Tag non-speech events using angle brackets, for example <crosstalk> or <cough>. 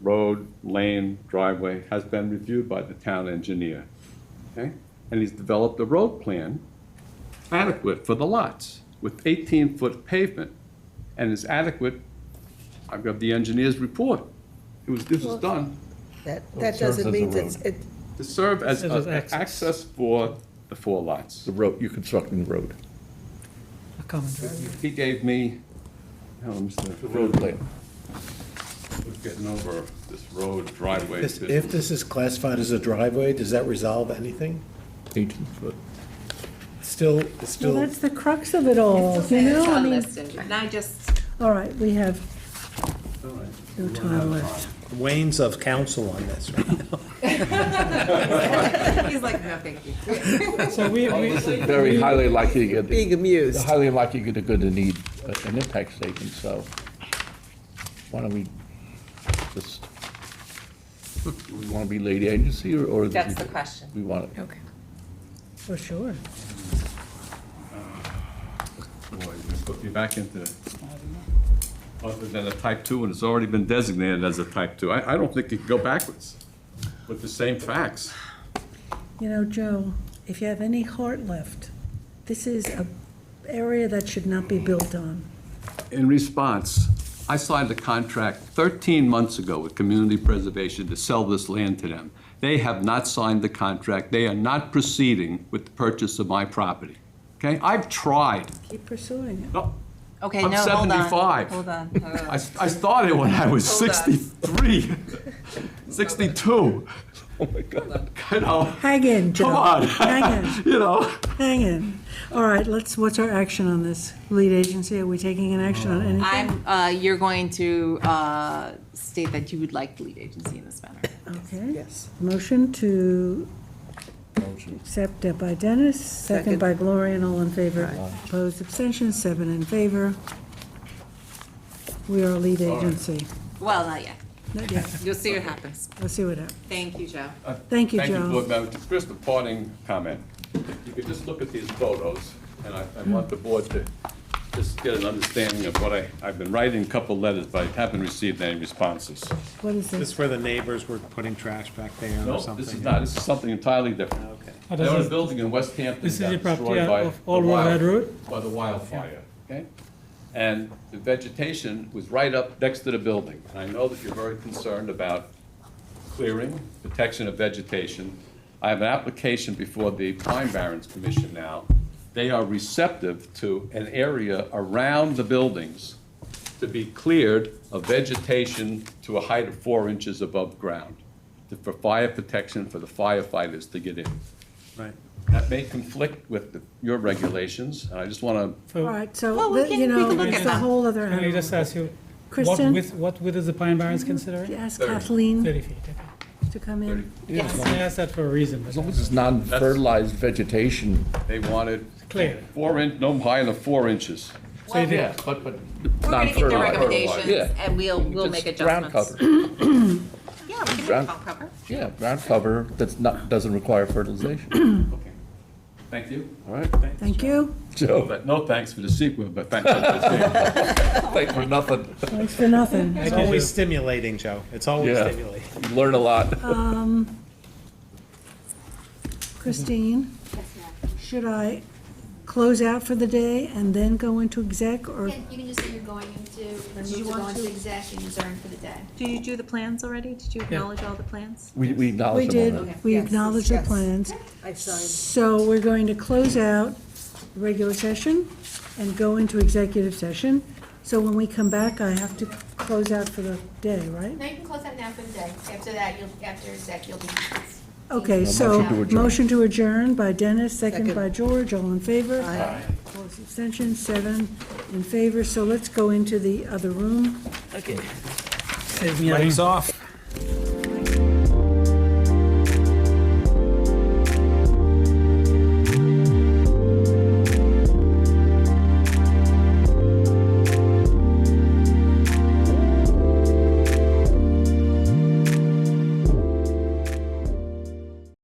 road, lane, driveway has been reviewed by the town engineer. Okay? And he's developed a road plan adequate for the lots with 18-foot pavement and is adequate. I've got the engineer's report. It was, this was done That, that Oh, serves as doesn't a mean road. it's, it, to serve as As an a- access. access for the four lots. The road, you're constructing the road. A common driveway. He gave me, oh, Mr. The road plan. We're Getting over this road driveway. This- If this is classified as a driveway, does that resolve anything? Eighteen foot. Still, it's Well, still, that's the crux of it Oh, all, you know, I mean, And I just, all right, we have no time left. Wayne's of counsel on this, right? he's like, no, thank <laughs> you. So we, we, This is very highly likely, you're gonna- being amused. highly likely you're going to need a- an impact statement, so why don't we just, do we want to be lead agency or- or? That's the question. We want it. Okay. For sure. Boy, you Put me back into, other than a type two, and it's already been designated as a type two. I, I don't think you can go backwards with the same facts. You know, Joe, if you have any heart left, this is a area that should not be built on. In response, I signed a contract 13 months ago with Community Preservation to sell this land to them. They have not signed the contract. They are not proceeding with the purchase of my property. Okay? I've tried. Keep pursuing it. No, Okay, I'm no, hold on. 75. Hold on. <laughs> I, I started when I was Hold <laughs> on. 63, 62. Oh, my God. You know, Hang in, Joe. come on. <laughs> Hang in, <laughs> You know? hang in. All right, let's, what's our action on this? Lead agency, are we taking an action on anything? <laughs> I'm, uh, you're going to, uh, state that you would like the lead agency in this matter. Okay, Yes. motion to accept uh, by Dennis, second Second. by Gloria, and all in favor. Opposed, abstentions, seven in favor. We are a lead agency. Well, not yet. Not yet, You'll see what happens. we'll see what happens. Thank you, Joe. Thank you, Uh, Thank you, Joe. Board Member. Just Chris, the parting comment. You could just look at these photos, and I, I want the board to just get an understanding of what I, I've been writing a couple letters, but I haven't received any responses. What is This this? is where the neighbors were putting trash back there No, or something? this is not, this is something entirely different. Okay. Oh, They this own a is- building in West Hampton this is the got property destroyed by of the Old Royal wild- Head Road? By the wildfire, okay? And the vegetation was right up next to the building. And I know that you're very concerned about clearing, protection of vegetation. I have an application before the Pine Barrens Commission now. They are receptive to an area around the buildings to be cleared of vegetation to a height of four inches above ground to- for fire protection for the firefighters to get in. Right. That may conflict with the- your regulations, and I just want to, All so right, so, Well, we let- can- you we can know, look it's at a that. whole other can I animal. just ask you, what Kristen? Mm-hmm. width, what width is the Pine Barrens considering? Ask Thirty. Kathleen Thirty feet. okay. to come in. I asked that for a reason, As long but as it's non-fertilized vegetation. they wanted clear. four inch, no higher than four inches. So you Yeah, but, but. We're gonna get the non-fertilized. recommendations Yeah. and we'll, we'll Just make ground adjustments. cover. Yeah, we can do Ground- top cover. Yeah, ground cover that's not, doesn't require fertilization, Okay. Thank you. all right? Thank you. Joe, But no thanks for the sequel, but thanks for the sequel. thanks for nothing. Thanks for nothing. It's always stimulating, Joe. It's always Yeah. stimulating. You learn a lot. Christine, should I close out for the day and then go into exec, or Yeah, you can just say you're going into, you you want want to- to exec and adjourn for the day. Did you do the plans already? Did you acknowledge all the plans? We, we We acknowledge them all. did, we Yes, acknowledge the yes. plans. I signed. So we're going to close out the regular session and go into executive session. So when we come back, I have to close out for the day, right? Now you can close that now for the day. After that, you'll, after exec, you'll be. Okay, A so, motion to adjourn. motion to adjourn by Dennis, second Second. by George, all in favor? Aye. Opposed, abstentions, seven in favor, so let's go into the other room. Save me having- Mike's off.